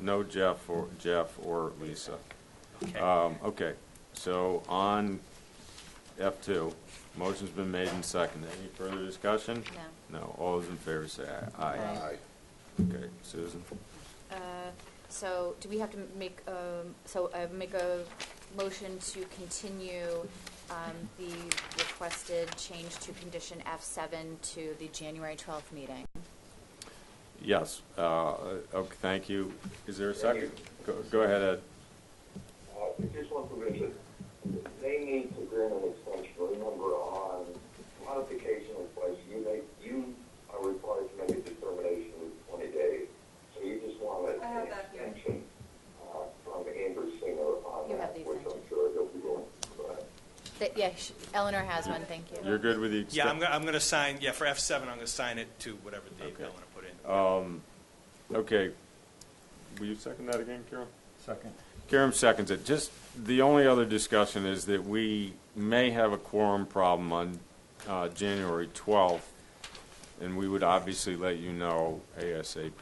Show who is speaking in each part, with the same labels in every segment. Speaker 1: no Jeff or, Jeff or Lisa.
Speaker 2: Okay.
Speaker 1: Um, okay, so on F two, motion's been made and seconded. Any further discussion?
Speaker 3: No.
Speaker 1: No, all those in favor say aye.
Speaker 3: Aye.
Speaker 4: Aye.
Speaker 1: Okay, Susan,
Speaker 3: Uh, So do we have to make, um, so uh, make a motion to continue um, the requested change to condition F7 to the January 12th meeting?
Speaker 1: yes, uh, okay, thank you. Is there a second? Go, go ahead, Ed.
Speaker 5: Uh, Just one provision, they need to grant an extension, remember on modification request, you make, you are required to make a determination within twenty days. So you just want an
Speaker 6: I have that here.
Speaker 5: extension, uh, from Amber Singer on
Speaker 3: You have
Speaker 5: that,
Speaker 3: the
Speaker 5: which I'm
Speaker 3: extension.
Speaker 5: sure he'll be willing to provide.
Speaker 3: That- Yeah, sh- Eleanor has one, thank you.
Speaker 1: You're good with the
Speaker 2: Yeah, I'm
Speaker 1: extension?
Speaker 2: gonna, I'm gonna sign, yeah, for F seven, I'm gonna sign it to whatever date I
Speaker 1: Okay.
Speaker 2: want to put in.
Speaker 1: Um, okay. Will you second that again, Karen?
Speaker 4: Second.
Speaker 1: Karen seconds it. Just, the only other discussion is that we may have a quorum problem on uh, January 12th, and we would obviously let you know ASAP.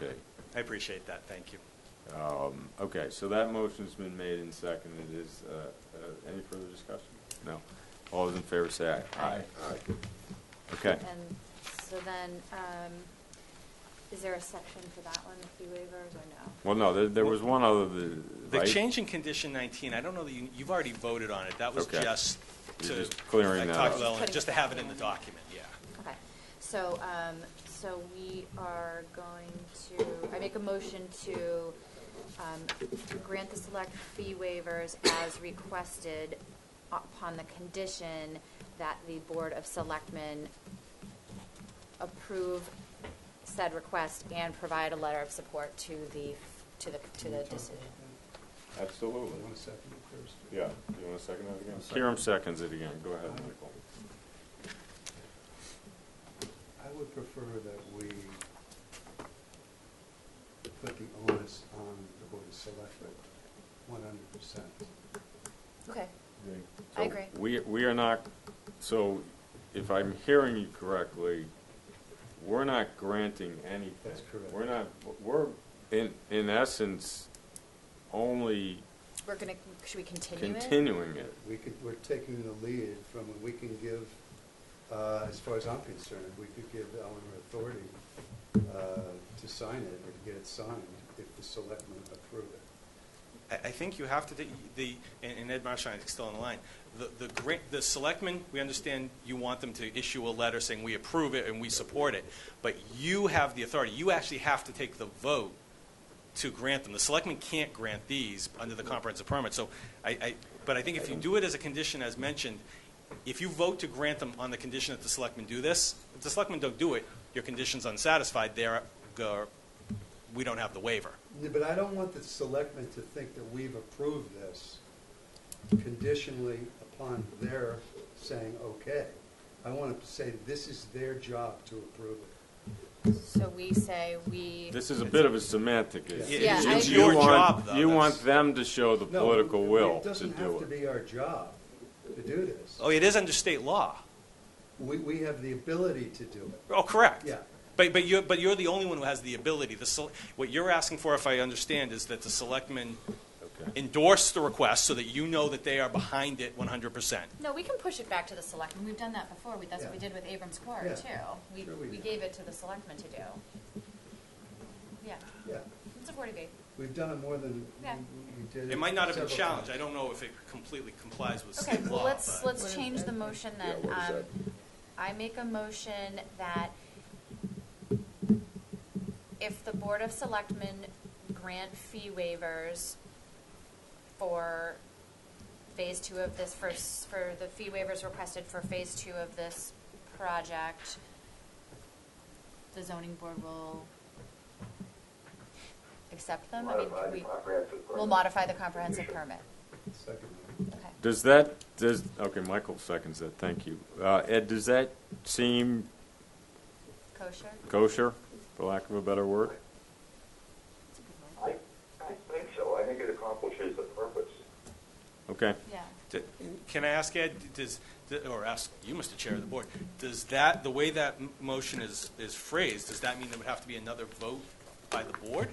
Speaker 2: I appreciate that, thank you.
Speaker 1: Um, Okay, so that motion's been made and seconded. Is, uh, uh, any further discussion? No. All those in favor say aye.
Speaker 3: Aye.
Speaker 4: Aye.
Speaker 1: Okay.
Speaker 3: And so then, um, is there a section for that one, the fee waivers, or no?
Speaker 1: Well, no, there- there was one other, the-
Speaker 2: The
Speaker 1: right?
Speaker 2: change in condition nineteen, I don't know that you, you've already voted on it, that was
Speaker 1: Okay.
Speaker 2: just
Speaker 1: You're
Speaker 2: to.
Speaker 1: just clearing
Speaker 2: I
Speaker 1: that
Speaker 2: talked
Speaker 1: up.
Speaker 2: to Ellen, Just to have it in the document, yeah.
Speaker 3: Okay, so, um, so we are going to, I make a motion to, um, grant the select fee waivers as requested upon the condition that the Board of Selectmen approve said request and provide a letter of support to the, to the, to the decision.
Speaker 1: Absolutely.
Speaker 7: One second, first.
Speaker 1: Yeah, you want to second that again?
Speaker 4: I'll second.
Speaker 1: Karen seconds it again. Go ahead, Michael.
Speaker 7: I would prefer that we put the onus on the Board of Selectmen, one hundred percent.
Speaker 3: Okay,
Speaker 1: So
Speaker 3: I agree.
Speaker 1: We, we are not, so if I'm hearing you correctly, we're not granting anything.
Speaker 7: That's correct.
Speaker 1: We're not, we're, in, in essence, only
Speaker 3: we're gonna, should we continue it?
Speaker 1: continuing it.
Speaker 7: We could, we're taking the lead from, we can give, uh, as far as I'm concerned, we could give Eleanor authority uh, to sign it or to get it signed if the selectmen approve it.
Speaker 2: I, I think you have to, take the, and and Ed Marshall is still on the line, the, the grant, the selectmen, we understand you want them to issue a letter saying we approve it and we support it, but you have the authority, you actually have to take the vote to grant them. The selectmen can't grant these under the comprehensive permit, so I, I, but I think if you do it as a condition as mentioned, if you vote to grant them on the condition that the selectmen do this, if the selectmen don't do it, your condition's unsatisfied, there, go, we don't have the waiver.
Speaker 7: Yeah, But I don't want the selectmen to think that we've approved this conditionally upon their saying, okay. I want to say this is their job to approve it.
Speaker 3: So we say we.
Speaker 1: This is a bit of a semantic issue.
Speaker 3: Yeah,
Speaker 1: You-
Speaker 3: I
Speaker 1: you
Speaker 3: agree.
Speaker 2: your
Speaker 1: want-
Speaker 2: job, though.
Speaker 1: You want
Speaker 2: That's-
Speaker 1: them to show the
Speaker 7: No,
Speaker 1: political will
Speaker 7: It
Speaker 1: to
Speaker 7: doesn't have to
Speaker 1: do it.
Speaker 7: be our job to do this.
Speaker 2: Oh, it is under state law.
Speaker 7: We, we have the ability to do it.
Speaker 2: Oh, correct.
Speaker 7: Yeah.
Speaker 2: But, but you're, but you're the only one who has the ability. The, sele- what you're asking for, if I understand, is that the selectmen
Speaker 1: Okay.
Speaker 2: endorse the request so that you know that they are behind it 100%.
Speaker 3: No, we can push it back to the selectmen. We've done that before. We- That's what we
Speaker 7: Yeah.
Speaker 3: did with Abrams Quarry,
Speaker 7: Yeah.
Speaker 3: too. We,
Speaker 7: Sure we
Speaker 3: we
Speaker 7: did.
Speaker 3: gave it to the selectmen to do. Yeah,
Speaker 7: Yeah,
Speaker 3: it's a 40B.
Speaker 7: we've done it more than we-
Speaker 3: Yeah.
Speaker 7: we did.
Speaker 2: It might not have been
Speaker 7: several
Speaker 2: challenged. I
Speaker 7: times.
Speaker 2: don't know if it completely complies with
Speaker 3: Okay,
Speaker 2: state
Speaker 3: well,
Speaker 2: law.
Speaker 3: let's,
Speaker 2: but-
Speaker 7: What
Speaker 3: let's
Speaker 7: is
Speaker 3: change
Speaker 7: that?
Speaker 3: the motion
Speaker 4: Yeah,
Speaker 3: then.
Speaker 4: what is
Speaker 3: Um,
Speaker 4: that?
Speaker 3: I make a motion that if the Board of Selectmen grant fee waivers for phase two of this, for, s- for the fee waivers requested for phase two of this project, the zoning board will accept them? I mean,
Speaker 5: Modify the
Speaker 3: we,
Speaker 5: comprehensive
Speaker 3: we'll
Speaker 5: permit.
Speaker 3: modify the comprehensive permit.
Speaker 7: Second.
Speaker 3: Okay.
Speaker 1: Does that, does, okay, Michael seconds that, thank you. Uh, Ed, does that seem
Speaker 3: Kosher?
Speaker 1: kosher, for lack of a better word?
Speaker 3: That's a good word.
Speaker 5: I, I think so, I think it accomplishes the purpose.
Speaker 1: Okay.
Speaker 3: Yeah.
Speaker 2: D- Can I ask Ed, does, th- or ask you, Mr. Chair of the Board, does that, the way that m- motion is, is phrased, does that mean there would have to be another vote by the board?